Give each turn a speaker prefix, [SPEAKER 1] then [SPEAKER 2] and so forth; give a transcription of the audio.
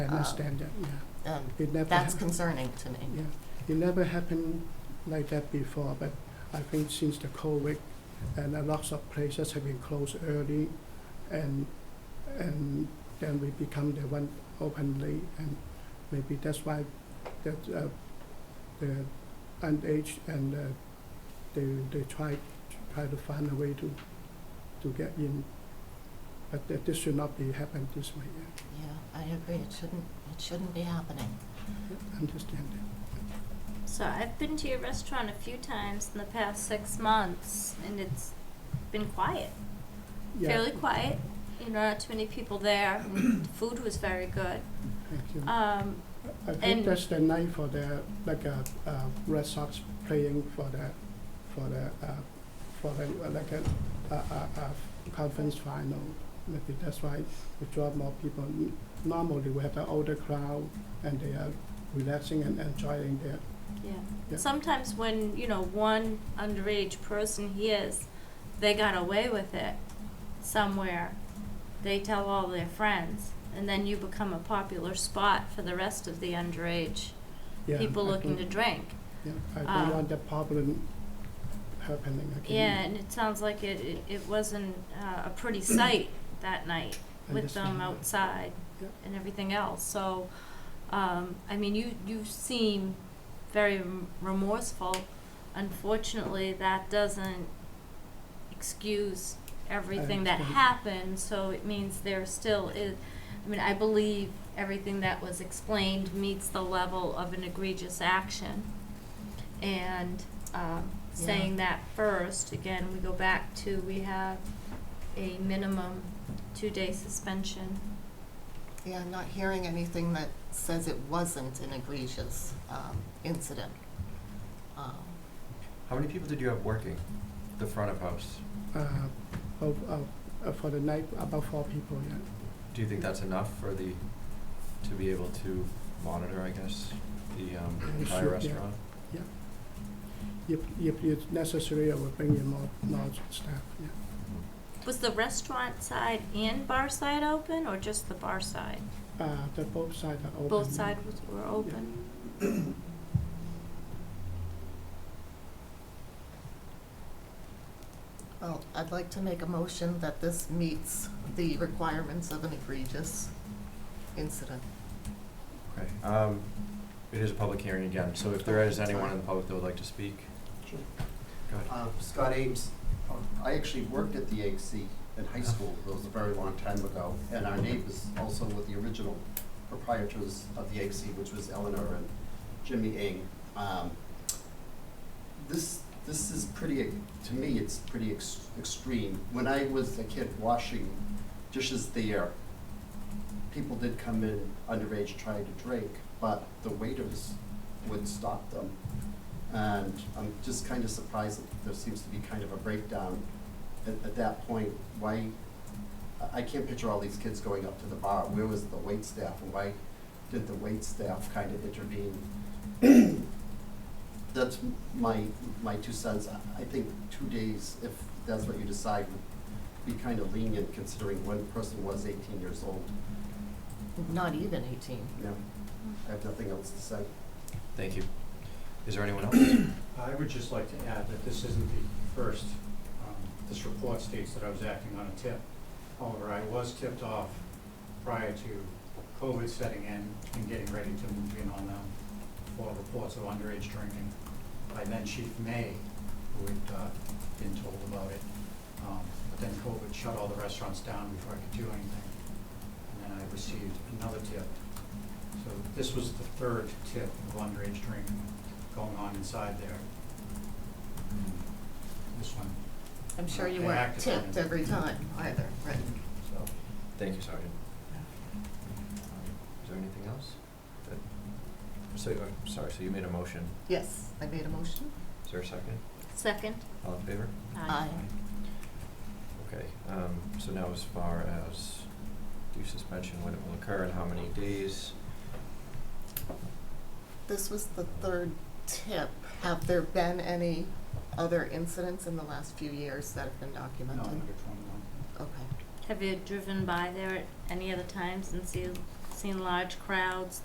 [SPEAKER 1] understand that, yeah.
[SPEAKER 2] Um,
[SPEAKER 1] It never,
[SPEAKER 2] That's
[SPEAKER 1] hap-
[SPEAKER 2] concerning to me.
[SPEAKER 1] yeah, it never happened like that before, but I think since the COVID, and a lots of places have been closed early, and, and then we become the one open late, and maybe that's why that, uh, the underage and, uh, they, they try, try to find a way to, to get in. But that this should not be happened this way, yeah.
[SPEAKER 2] Yeah, I agree, it shouldn't, it shouldn't be happening.
[SPEAKER 1] Understand that.
[SPEAKER 3] So I've been to your restaurant a few times in the past six months, and it's been quiet,
[SPEAKER 1] Yeah,
[SPEAKER 3] fairly quiet. You know, not too many people there. and the food was very good.
[SPEAKER 1] thank you.
[SPEAKER 3] Um,
[SPEAKER 1] I think
[SPEAKER 3] and-
[SPEAKER 1] that's the night for the, like, uh, uh, Red Sox playing for the, for the, uh, for the, uh, like, a, uh, uh, uh, conference final. Maybe that's why we draw more people. N- Normally, we have the older crowd, and they are relaxing and enjoying their,
[SPEAKER 3] yeah.
[SPEAKER 1] Yeah.
[SPEAKER 3] Sometimes when you know one underage person hears they got away with it somewhere, they tell all their friends, and then you become a popular spot for the rest of the underage
[SPEAKER 1] yeah.
[SPEAKER 3] people
[SPEAKER 1] I
[SPEAKER 3] looking to
[SPEAKER 1] don't-
[SPEAKER 3] drink.
[SPEAKER 1] Yeah, I
[SPEAKER 3] um,
[SPEAKER 1] don't want the problem happening again.
[SPEAKER 3] Yeah, and it sounds like it, it, it wasn't uh, a pretty sight that night with them
[SPEAKER 1] Understand.
[SPEAKER 3] outside
[SPEAKER 1] Yep.
[SPEAKER 3] and everything else. So, um, I mean, you, you seem very rem- remorseful. Unfortunately, that doesn't excuse everything that
[SPEAKER 1] understand.
[SPEAKER 3] happened, so it means there still is, I mean, I believe everything that was explained meets the level of an egregious action. And, um,
[SPEAKER 2] Yeah.
[SPEAKER 3] saying that first, again, we go back to, we have a minimum two-day suspension.
[SPEAKER 2] Yeah, I'm not hearing anything that says it wasn't an egregious um, incident. Um,
[SPEAKER 4] How many people did you have working the front of house?
[SPEAKER 1] Uh, of, of, uh, for the night, about four people, yeah.
[SPEAKER 4] Do you think that's enough for the, to be able to monitor, I guess, the um, entire
[SPEAKER 1] Sure, yeah.
[SPEAKER 4] restaurant?
[SPEAKER 1] If, if it's necessary, I will bring in more, more staff, yeah.
[SPEAKER 3] Was the restaurant side and bar side open, or just the bar side?
[SPEAKER 1] Uh, the both sides are open.
[SPEAKER 3] Both sides was- were open?
[SPEAKER 2] Well, I'd like to make a motion that this meets the requirements of an egregious incident.
[SPEAKER 4] Okay. Um, it is a public hearing again, so if there is anyone in the public that would like to speak,
[SPEAKER 5] Sure.
[SPEAKER 4] go ahead.
[SPEAKER 5] Uh, Scott Ames, uh, I actually worked at the AC in high school, it was a very long time ago, and our neighbors also were the original proprietors of the AC, which was Eleanor and Jimmy Ng. Um, This, this is pretty, to me, it's pretty ex- extreme. When I was a kid washing dishes there, people did come in underage trying to drink, but the waiters would stop them. And I'm just kind of surprised that there seems to be kind of a breakdown at, at that point. Why, I, I can't picture all these kids going up to the bar. Where was the wait staff and why did the wait staff kind of intervene? That's my, my two cents. I- I think two days, if that's what you decide, would be kind of lenient considering one person was eighteen years old.
[SPEAKER 2] Not even eighteen.
[SPEAKER 5] No, I have nothing else to say.
[SPEAKER 4] Thank you. Is there anyone else?
[SPEAKER 6] I would just like to add that this isn't the first. Um, This report states that I was acting on a tip. However, I was tipped off prior to COVID setting in and getting ready to move in on them for reports of underage drinking. By then Chief May, who had uh, been told about it. Um, But then COVID shut all the restaurants down before I could do anything. And then I received another tip. So this was the third tip of underage drinking going on inside there. This one,
[SPEAKER 2] I'm sure you
[SPEAKER 6] They
[SPEAKER 2] weren't
[SPEAKER 6] acted on it.
[SPEAKER 2] tipped every time either, right?
[SPEAKER 6] so.
[SPEAKER 4] Thank you, Sergeant. Is there anything else? that- So, uh, sorry, so you made a motion.
[SPEAKER 2] Yes, I made a motion.
[SPEAKER 4] Is there a second?
[SPEAKER 3] Second?
[SPEAKER 4] All in favor?
[SPEAKER 2] Aye.
[SPEAKER 4] Okay, um, so now as far as due suspension, when it will occur and how many days?
[SPEAKER 2] This was the third tip. Have there been any other incidents in the last few years that have been
[SPEAKER 6] No,
[SPEAKER 2] documented?
[SPEAKER 6] under twenty-one.
[SPEAKER 2] Okay.
[SPEAKER 3] Have you driven by there at any other times and see, seen large crowds